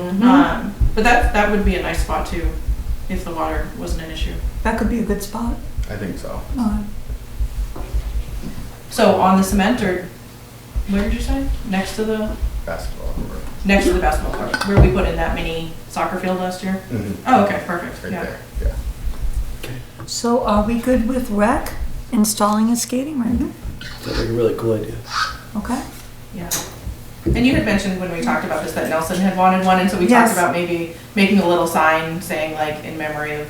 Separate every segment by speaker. Speaker 1: Mm-hmm.
Speaker 2: Um, but that that would be a nice spot too, if the water wasn't an issue.
Speaker 1: That could be a good spot.
Speaker 3: I think so.
Speaker 1: Uh,
Speaker 2: So on the cement or where did you say? Next to the
Speaker 3: Basketball. court.
Speaker 2: next to the basketball court where we put in that mini soccer field last year. Oh, okay, perfect.
Speaker 3: Right
Speaker 2: yeah.
Speaker 3: there, Mm-hmm. yeah.
Speaker 1: So are we good with rec installing a skating rink?
Speaker 4: Sounds like a really cool idea.
Speaker 1: Okay.
Speaker 2: Yeah. And you had mentioned when we talked about this that Nelson had wanted one, and so we
Speaker 1: Yes.
Speaker 2: talked about maybe making a little sign saying like in memory of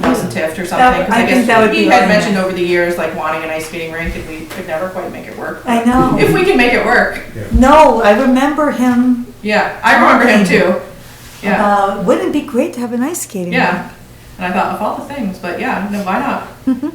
Speaker 2: Nelson Tift or
Speaker 1: That-
Speaker 2: something. 'cause
Speaker 1: I think
Speaker 2: guess
Speaker 1: that would
Speaker 2: he
Speaker 1: be
Speaker 2: had
Speaker 1: really
Speaker 2: mentioned over the years like wanting an ice skating rink, and we could never quite make it work.
Speaker 1: I know.
Speaker 2: If we can make it work,
Speaker 1: No, I remember him
Speaker 2: yeah, I remember him too. Yeah,
Speaker 1: about, wouldn't it be great to have an ice skating rink?
Speaker 2: yeah. And I thought of all the things, but yeah, no, why not?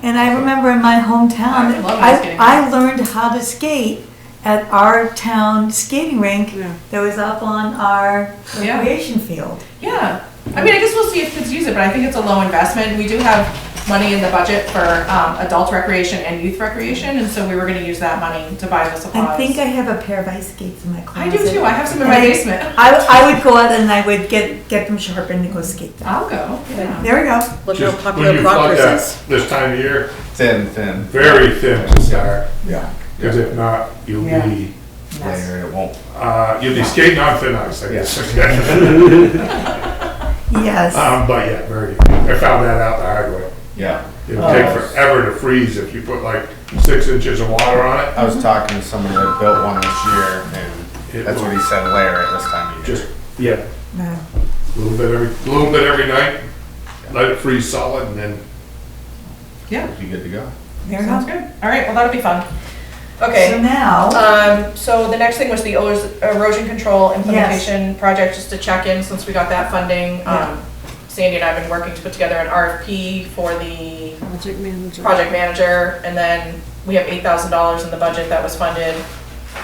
Speaker 1: And I remember in my hometown,
Speaker 2: I love ice
Speaker 1: I,
Speaker 2: skating.
Speaker 1: I learned how to skate at our town skating rink
Speaker 5: Yeah.
Speaker 1: that was up on our
Speaker 2: Yeah.
Speaker 1: recreation field.
Speaker 2: Yeah, I mean, I guess we'll see if kids use it, but I think it's a low investment. We do have money in the budget for um, adult recreation and youth recreation, and so we were gonna use that money to buy the supplies.
Speaker 1: I think I have a pair of ice skates in my
Speaker 2: I
Speaker 1: closet.
Speaker 2: do too, I have some in my
Speaker 1: And I-
Speaker 2: basement.
Speaker 1: I, I would go out and I would get, get them sharpened and go skate them.
Speaker 2: I'll go, yeah.
Speaker 1: There we go.
Speaker 5: Look how
Speaker 6: Just when
Speaker 5: popular
Speaker 6: you pluck
Speaker 5: Proctor's
Speaker 6: that
Speaker 5: is.
Speaker 6: This time of year,
Speaker 3: Thin, thin.
Speaker 6: very thin to start,
Speaker 3: Yeah.
Speaker 6: because if not, you'll be,
Speaker 3: Layer, it won't.
Speaker 6: uh, you'll be skating on thin ice, I guess.
Speaker 1: Yes.
Speaker 6: Um, but yeah, very, I found that out the hard way.
Speaker 3: Yeah.
Speaker 6: It'll take forever to freeze if you put like six inches of water on it,
Speaker 3: I was talking to someone that built one this year, and
Speaker 6: It
Speaker 3: that's what he
Speaker 6: will-
Speaker 3: said, layer it this time of year.
Speaker 6: just, yeah,
Speaker 1: No.
Speaker 6: a little bit every, a little bit every night, let it freeze solid and then
Speaker 2: Yeah,
Speaker 3: Be good to go.
Speaker 1: There we
Speaker 2: sounds
Speaker 1: go.
Speaker 2: good. All right, well, that'll be fun.
Speaker 1: So
Speaker 2: Okay,
Speaker 1: now,
Speaker 2: um, so the next thing was the ero- erosion control implementation project, just to check in since we got that funding. Um, Sandy and I have been working to put together an RFP for the
Speaker 5: Project manager.
Speaker 2: project manager, and then we have eight thousand dollars in the budget that was funded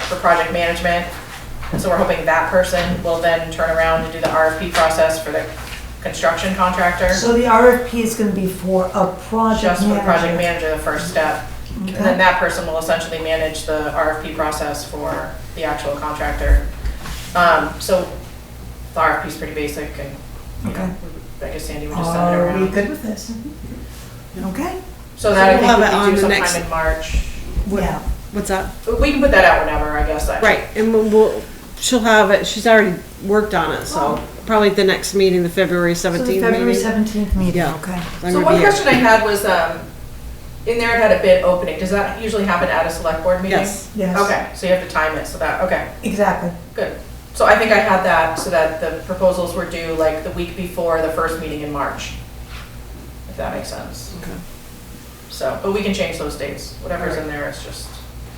Speaker 2: for project management. And so we're hoping that person will then turn around and do the RFP process for the construction contractor.
Speaker 1: so the RFP is gonna be for a project
Speaker 2: Just for the project
Speaker 1: manager.
Speaker 2: manager, the first step. And then that person will essentially manage the RFP process for the actual contractor. Um, so the RFP's pretty basic and, you know,
Speaker 1: Okay.
Speaker 2: I guess Sandy would just send it
Speaker 1: Are we
Speaker 2: around. Mm-hmm.
Speaker 1: good with this? Okay,
Speaker 2: So that I
Speaker 5: Oh, So we'll have it
Speaker 2: think
Speaker 5: on
Speaker 2: we could
Speaker 5: the
Speaker 2: do
Speaker 5: next-
Speaker 2: sometime in March.
Speaker 5: What-
Speaker 1: yeah.
Speaker 5: What's up?
Speaker 2: We can put that out whenever, I guess. I-
Speaker 5: Right, and we'll- we'll, she'll have it, she's already worked on it, so probably the next meeting, the February
Speaker 1: So the
Speaker 5: seventeenth
Speaker 1: February
Speaker 5: meeting.
Speaker 1: seventeenth meeting,
Speaker 5: Yeah.
Speaker 1: okay.
Speaker 5: I'm
Speaker 2: So
Speaker 5: gonna
Speaker 2: one
Speaker 5: be here.
Speaker 2: question I had was, um, in there it had a bid opening, does that usually happen at a select board meeting?
Speaker 5: Yes.
Speaker 1: Yes.
Speaker 2: Okay, so you have to time it, so that, okay,
Speaker 1: Exactly.
Speaker 2: good. So I think I had that, so that the proposals were due like the week before the first meeting in March, if that makes sense.
Speaker 5: Okay.
Speaker 2: So, but we can change those dates, whatever's in there is just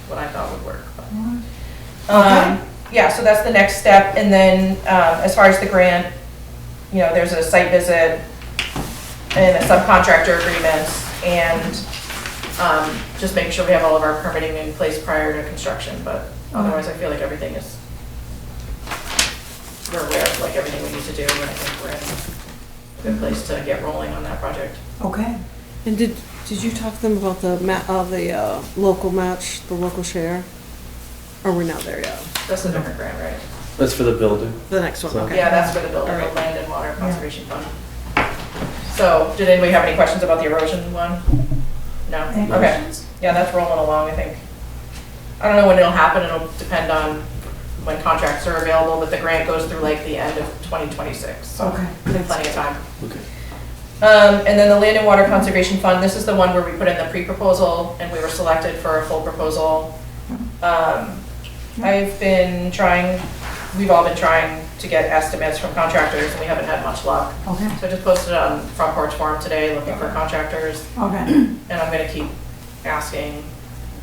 Speaker 2: what I thought would work. but-
Speaker 1: Okay.
Speaker 2: Um, yeah, so that's the next step, and then, um, as far as the grant, you know, there's a site visit and a subcontractor agreements, and, um, just making sure we have all of our permitting in place prior to construction, but otherwise, I feel like everything is, we're aware of, like, everything we need to do, and I think we're in a good place to get rolling on that project.
Speaker 1: Okay.
Speaker 5: And did, did you talk to them about the ma, uh, the, uh, local match, the local share? Or we're not there yet?
Speaker 2: That's a different grant, right?
Speaker 4: That's for the building.
Speaker 5: The next one,
Speaker 4: So-
Speaker 5: okay.
Speaker 2: Yeah, that's for the building,
Speaker 5: All
Speaker 2: the
Speaker 5: right.
Speaker 2: land and water conservation fund. So, did anybody have any questions about the erosion one? No?
Speaker 1: Any
Speaker 2: Okay. Yeah, that's rolling along, I think. I don't know when it'll happen, it'll depend on when contracts are available, but the grant goes through like the end of 2026, so
Speaker 1: Okay.
Speaker 2: we have plenty of time.
Speaker 4: Okay.
Speaker 2: Um, and then the Land and Water Conservation Fund, this is the one where we put in the pre-proposal and we were selected for a full proposal. Um, I've been trying, we've all been trying to get estimates from contractors and we haven't had much luck.
Speaker 1: Okay.
Speaker 2: So I just posted on Front Porch Forum today looking for contractors
Speaker 1: Okay.
Speaker 2: and I'm gonna keep asking.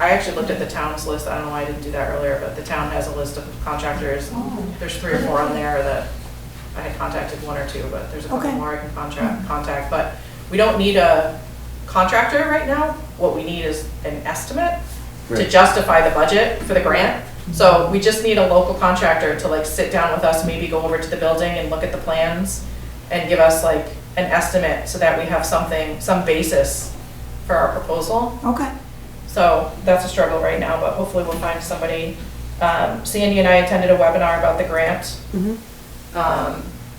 Speaker 2: I actually looked at the town's list, I don't know why I didn't do that earlier, but the town has a list of contractors. There's three or four on there that I had contacted one or two, but there's a couple
Speaker 1: Okay.
Speaker 2: more I can contract, contact. But we don't need a contractor right now, what we need is an estimate to
Speaker 4: Right.
Speaker 2: justify the budget for the grant. So we just need a local contractor to like sit down with us, maybe go over to the building and look at the plans and give us like an estimate so that we have something, some basis for our proposal.
Speaker 1: Okay.
Speaker 2: So that's a struggle right now, but hopefully we'll find somebody. Um, Sandy and I attended a webinar about the grant.
Speaker 5: Mhm.
Speaker 2: Um,